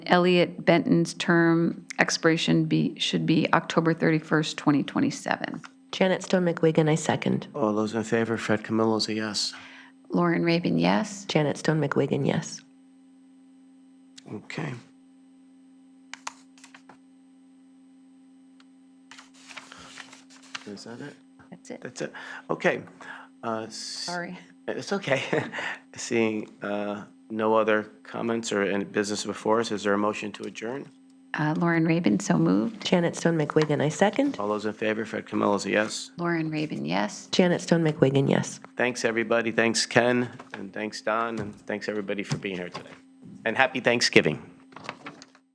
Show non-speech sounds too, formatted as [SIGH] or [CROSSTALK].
Elliot Benton's term expiration be, should be October 31st, 2027. Janet Stone McWigan, I second. All Oh, those in favor, Fred Camillo's a yes. Lauren Raven, yes. Janet Stone McWigan, yes. Okay. Is that it? That's it. That's it. Okay. Uh, s- Sorry. It's okay. [LAUGHS] Seeing uh, no other comments or any business before us, is there a motion to adjourn? Uh, Lauren Raven, so moved. Janet Stone McWigan, I second. All those in favor, Fred Camillo's a yes. Lauren Raven, yes. Janet Stone McWigan, yes. Thanks, everybody. Thanks, Ken, and thanks, Don, and thanks, everybody, for being here today. And happy Thanksgiving.